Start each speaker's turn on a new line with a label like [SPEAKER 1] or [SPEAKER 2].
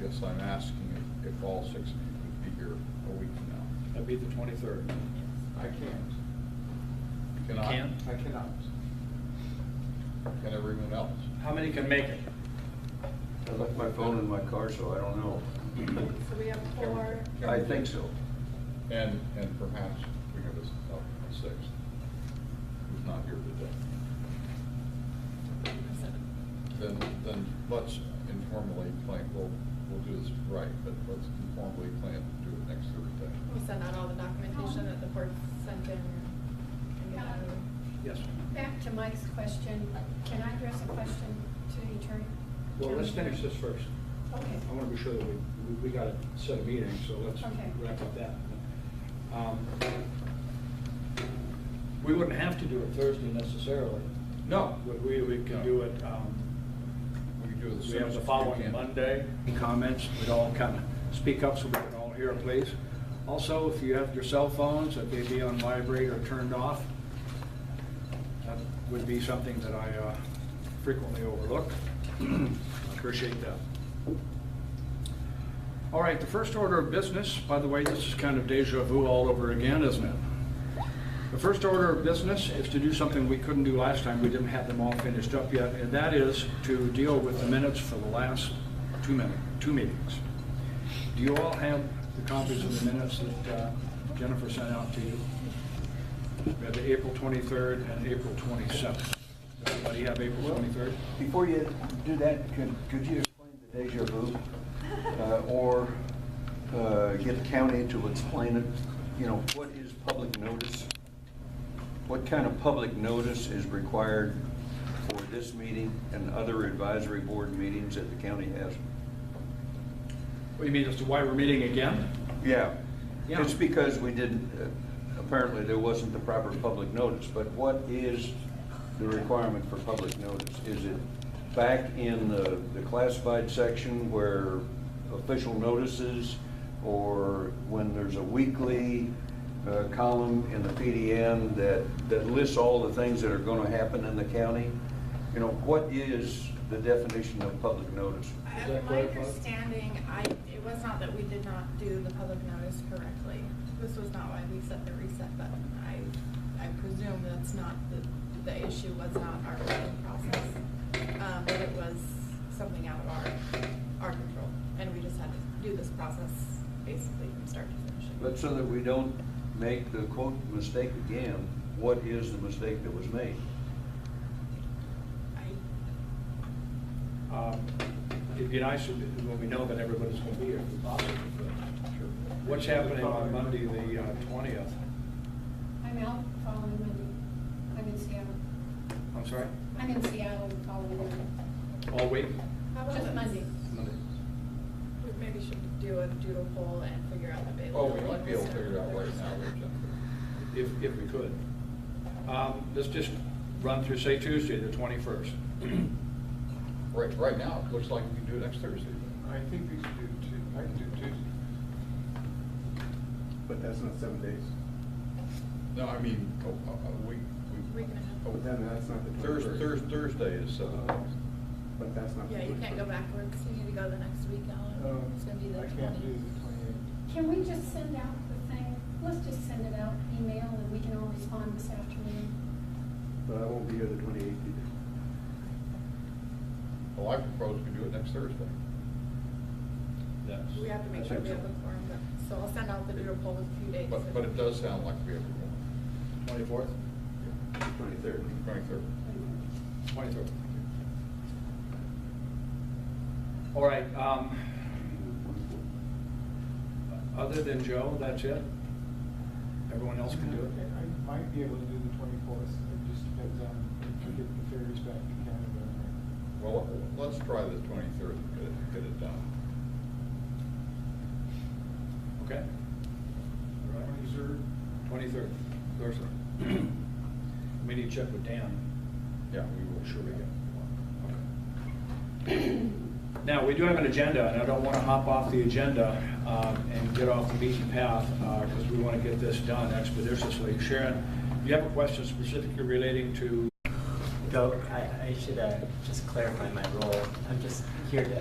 [SPEAKER 1] guess I'm asking if- if all six of you could be here a week from now.
[SPEAKER 2] That'd be the twenty-third.
[SPEAKER 1] I can't.
[SPEAKER 3] You
[SPEAKER 1] Cannot?
[SPEAKER 3] can't?
[SPEAKER 1] I cannot. Can everyone else?
[SPEAKER 2] How many can make it?
[SPEAKER 4] I left my phone in my car, so I don't know.
[SPEAKER 5] So we have four,
[SPEAKER 4] I think so.
[SPEAKER 1] And, and perhaps we have a, s- a sixth who's not here today. Then, then let's informally plan, we'll, we'll do this right, but let's informally plan to do it next Thursday.
[SPEAKER 5] we'll send out all the documentation that the board sent in. and get out of there.
[SPEAKER 2] Yes.
[SPEAKER 6] Um, Back to Mike's question, can I address a question to the attorney?
[SPEAKER 2] Well, let's finish this first.
[SPEAKER 6] Okay.
[SPEAKER 2] I want to be sure that we, we- we got a set of meetings, so let's
[SPEAKER 6] Okay.
[SPEAKER 2] wrap up that. Um, We wouldn't have to do it Thursday necessarily.
[SPEAKER 1] No.
[SPEAKER 2] We- We, we could do it, um,
[SPEAKER 1] We can do it as
[SPEAKER 2] we
[SPEAKER 1] soon
[SPEAKER 2] have
[SPEAKER 1] as
[SPEAKER 2] the
[SPEAKER 1] we
[SPEAKER 2] following
[SPEAKER 1] can.
[SPEAKER 2] Monday, comments, we'd all kind of speak up so we can all hear, please. Also, if you have your cell phones, that they be on vibrate or turned off, that would be something that I uh, frequently overlook. Appreciate that. All right, the first order of business, by the way, this is kind of deja vu all over again, isn't it? The first order of business is to do something we couldn't do last time, we didn't have them all finished up yet, and that is to deal with the minutes for the last two minute, two meetings. Do you all have the copies of the minutes that uh, Jennifer sent out to you? We had the April 23rd and April 27th. Everybody have April 23rd?
[SPEAKER 4] Before you do that, could, could you explain the deja vu? Uh, Or uh, get the county to explain it, you know, what is public notice? What kind of public notice is required for this meeting and other advisory board meetings that the county has?
[SPEAKER 2] What do you mean, as to why we're meeting again?
[SPEAKER 4] Yeah,
[SPEAKER 2] Yeah.
[SPEAKER 4] it's because we didn't, uh, apparently there wasn't the proper public notice, but what is the requirement for public notice? Is it back in the, the classified section where official notices, or when there's a weekly uh, column in the PDN that, that lists all the things that are gonna happen in the county? You know, what is the definition of public notice?
[SPEAKER 2] Is
[SPEAKER 5] Uh,
[SPEAKER 2] that
[SPEAKER 5] My
[SPEAKER 2] clarified?
[SPEAKER 5] understanding, I, it was not that we did not do the public notice correctly. This was not why we set the reset button. I, I presume that's not, the, the issue was not our voting process. Um, but it was something out of our, our control. And we just had to do this process basically from start to finish.
[SPEAKER 4] But so that we don't make the quote mistake again, what is the mistake that was made?
[SPEAKER 5] I,
[SPEAKER 2] Um, It'd be nice if- when we know that everybody's going to be here, if possible. but- What's happening on Monday, the uh, twentieth?
[SPEAKER 6] I'm out the following Monday. I'm in Seattle.
[SPEAKER 2] I'm sorry?
[SPEAKER 6] I'm in Seattle the following Monday.
[SPEAKER 2] All week?
[SPEAKER 5] how about
[SPEAKER 6] Just
[SPEAKER 5] this?
[SPEAKER 6] Monday.
[SPEAKER 2] Monday.
[SPEAKER 5] We maybe should do a doodle poll and figure out the
[SPEAKER 1] Oh,
[SPEAKER 5] availability.
[SPEAKER 1] we might be able to figure it out right now,
[SPEAKER 5] Start.
[SPEAKER 1] Jim.
[SPEAKER 2] If, if we could. Um, Let's just run through, say Tuesday, the twenty-first.
[SPEAKER 1] Right, right now, it looks like we can do it next Thursday.
[SPEAKER 7] I think we should do two, I can do Tuesday. But that's not seven days.
[SPEAKER 1] No, I mean, oh, uh, a, a- a week.
[SPEAKER 5] Week and a half.
[SPEAKER 7] But then Oh, that's not the
[SPEAKER 1] oh, Thurs,
[SPEAKER 7] 21st.
[SPEAKER 1] Thurs, Thursday is uh, seven days.
[SPEAKER 7] But that's not. the
[SPEAKER 5] Yeah, you can't go
[SPEAKER 7] 21st.
[SPEAKER 5] backwards, you need to go the next week, Alan,
[SPEAKER 7] Um,
[SPEAKER 5] it's gonna be the
[SPEAKER 7] I can't do
[SPEAKER 5] twenty.
[SPEAKER 7] the twenty-eighth.
[SPEAKER 6] Can we just send out the thing, let's just send it out, email, and we can all respond this afternoon?
[SPEAKER 7] But I won't be here the twenty-eighth either.
[SPEAKER 1] Well, I propose we do it next Thursday.
[SPEAKER 2] Yes.
[SPEAKER 5] We have to make
[SPEAKER 2] I
[SPEAKER 5] sure
[SPEAKER 2] think
[SPEAKER 5] we have
[SPEAKER 2] so.
[SPEAKER 5] a quorum, but- so I'll send out the doodle poll with a few dates.
[SPEAKER 1] But, but it does sound like we have a
[SPEAKER 2] Twenty-fourth?
[SPEAKER 7] Twenty-third.
[SPEAKER 1] twenty-third.
[SPEAKER 2] Twenty-third. All right. um, Other than Joe, that's it? Everyone else can do it?
[SPEAKER 8] I I might be able to do the twenty-fourth, it just depends on if we get the ferries back to Canada.
[SPEAKER 1] Well, uh, let's try the twenty-third and get it, get it done.
[SPEAKER 2] Okay. All right.
[SPEAKER 8] Twenty-third,
[SPEAKER 2] Twenty-third, Thursday. We need to check with Dan.
[SPEAKER 1] Yeah, we will, sure
[SPEAKER 2] Sure we
[SPEAKER 1] we can.
[SPEAKER 2] Okay. Now, we do have an agenda, and I don't want to hop off the agenda um, and get off the beaten path, because we want to get this done expeditiously. Sharon, do you have a question specifically relating to
[SPEAKER 9] Go, I, I should uh, just clarify my role. I'm just here to